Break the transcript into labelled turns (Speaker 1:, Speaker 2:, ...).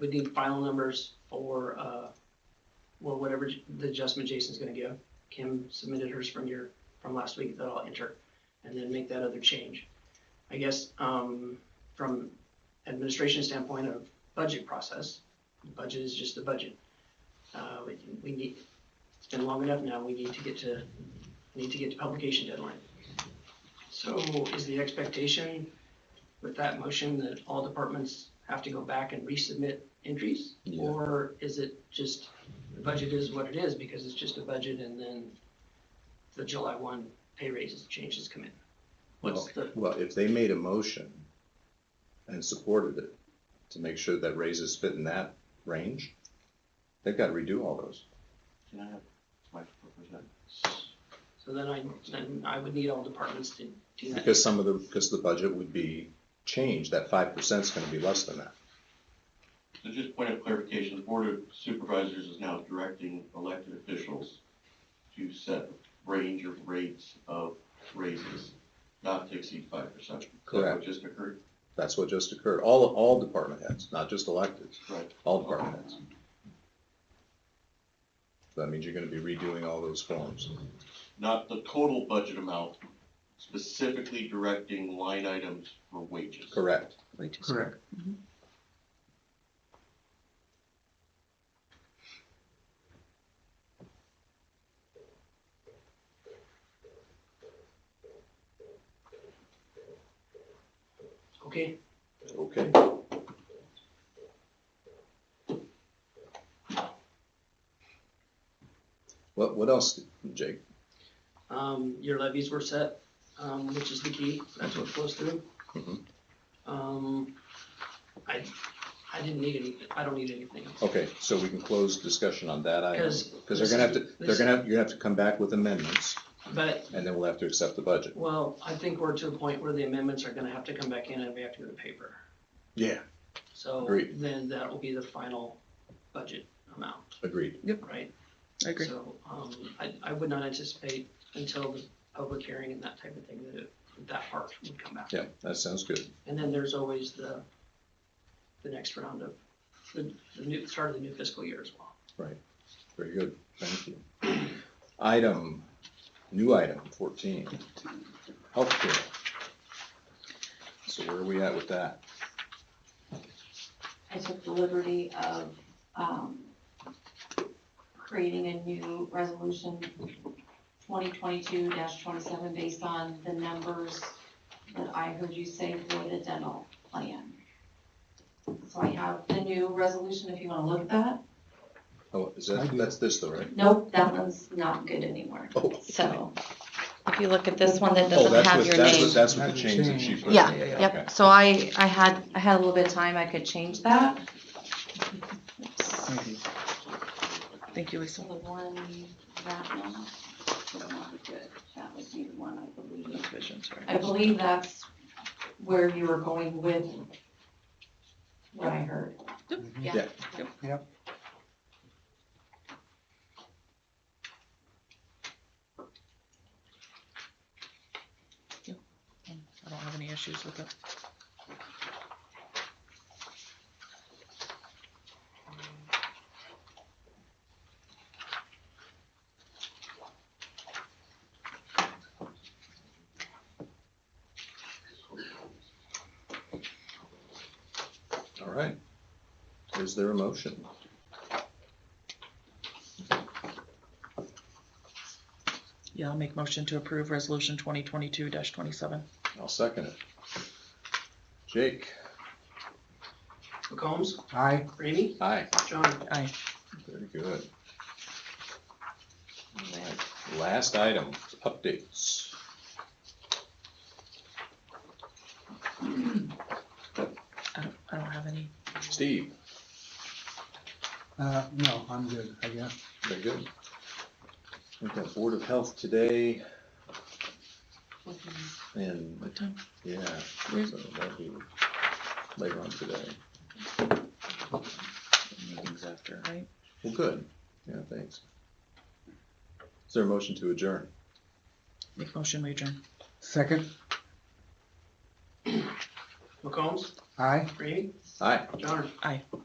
Speaker 1: we need final numbers for, uh, well, whatever j- the adjustment Jason's gonna give. Kim submitted hers from your, from last week that I'll enter, and then make that other change. I guess, um, from administration standpoint of budget process, budget is just the budget. Uh, we, we need, it's been long enough now, we need to get to, need to get to publication deadline. So is the expectation with that motion that all departments have to go back and resubmit entries?
Speaker 2: Yeah.
Speaker 1: Or is it just, the budget is what it is because it's just a budget and then the July one pay raises, changes come in? What's the,
Speaker 2: Well, if they made a motion and supported it to make sure that raises fit in that range, they've got to redo all those.
Speaker 3: Can I have my proposal?
Speaker 1: so then I, then I would need all departments to do that.
Speaker 2: Because some of the, because the budget would be changed, that five percent is going to be less than that.
Speaker 3: So just point of clarification, the Board of Supervisors is now directing elected officials to set range of rates of raises not to exceed five percent.
Speaker 2: Correct.
Speaker 3: Just occurred,
Speaker 2: That's what just occurred. All, all department heads, not just electeds,
Speaker 3: right,
Speaker 2: all department heads. So That means you're going to be redoing all those forms.
Speaker 3: not the total budget amount, specifically directing line items for wages.
Speaker 2: Correct.
Speaker 4: Correct.
Speaker 1: Okay,
Speaker 2: Okay. What, what else, Jake?
Speaker 1: um, your levies were set, um, which is the key, that's what flows through.
Speaker 2: Mhm.
Speaker 1: Um, I, I didn't need any, I don't need anything else.
Speaker 2: Okay, so we can close discussion on that item,
Speaker 1: 'Cause
Speaker 2: because they're gonna have to, they're
Speaker 1: this-
Speaker 2: gonna, have- you're gonna have to come back with amendments,
Speaker 1: But,
Speaker 2: and then we'll have to accept the budget.
Speaker 1: well, I think we're to a point where the amendments are gonna have to come back in and we have to go to paper.
Speaker 2: Yeah.
Speaker 1: So
Speaker 2: Agreed.
Speaker 1: then that will be the final budget amount,
Speaker 2: Agreed.
Speaker 1: right?
Speaker 5: I agree.
Speaker 1: So, um, I, I would not anticipate until the public hearing and that type of thing that it, that part would come back.
Speaker 2: Yeah, that sounds good.
Speaker 1: And then there's always the, the next round of, the, the new, start of the new fiscal year as well.
Speaker 2: Very good. Thank you. Item, new item fourteen, healthcare. So where are we at with that?
Speaker 6: I took the liberty of, um, creating a new resolution, twenty twenty-two twenty-seven, based on the numbers that I heard you say for the dental plan. So I have the new resolution, if you wanna look at that.
Speaker 2: Oh, is
Speaker 4: I
Speaker 2: that,
Speaker 4: do.
Speaker 2: that's this though, right?
Speaker 6: Nope, that one's not good anymore.
Speaker 2: Oh,
Speaker 5: So if you look at this one that
Speaker 6: Oh,
Speaker 2: Oh,
Speaker 5: doesn't
Speaker 2: that's
Speaker 5: have
Speaker 2: with,
Speaker 5: your
Speaker 2: that's with,
Speaker 5: name.
Speaker 2: that's with the
Speaker 4: Hasn't
Speaker 2: change that she
Speaker 4: changed.
Speaker 2: put in.
Speaker 5: Yeah,
Speaker 2: okay.
Speaker 5: yep. So I, I had, I had a little bit of time. I could change that.
Speaker 4: Thank you.
Speaker 5: Thank you,
Speaker 6: So
Speaker 5: Lisa.
Speaker 6: the one, that one, would not be good. That would be the one, I believe. I believe that's where you were going with what I heard.
Speaker 5: Yeah.
Speaker 2: Yeah.
Speaker 4: Yep.
Speaker 5: I don't have any issues with it.
Speaker 2: All right. Is there a motion?
Speaker 5: Yeah, I'll make motion to approve resolution twenty twenty-two twenty-seven.
Speaker 2: I'll second it. Jake,
Speaker 1: McCombs,
Speaker 4: Aye.
Speaker 1: Ramey,
Speaker 2: aye.
Speaker 1: John,
Speaker 5: Aye.
Speaker 2: Very good. All right. Last item, updates.
Speaker 5: I don't, I don't have any.
Speaker 2: Steve,
Speaker 4: Uh, no, I'm good, I guess.
Speaker 2: very good. We've got Board of Health today and,
Speaker 5: What time?
Speaker 2: yeah, so
Speaker 5: Where's-
Speaker 2: that'll be later on today.
Speaker 5: Meetings after, right?
Speaker 2: Well, good. Yeah, thanks. Is there a motion to adjourn?
Speaker 5: Make motion, we adjourn.
Speaker 4: Second,
Speaker 1: McCombs,
Speaker 4: aye.
Speaker 1: Ramey,
Speaker 2: Aye.
Speaker 1: John.
Speaker 5: Aye.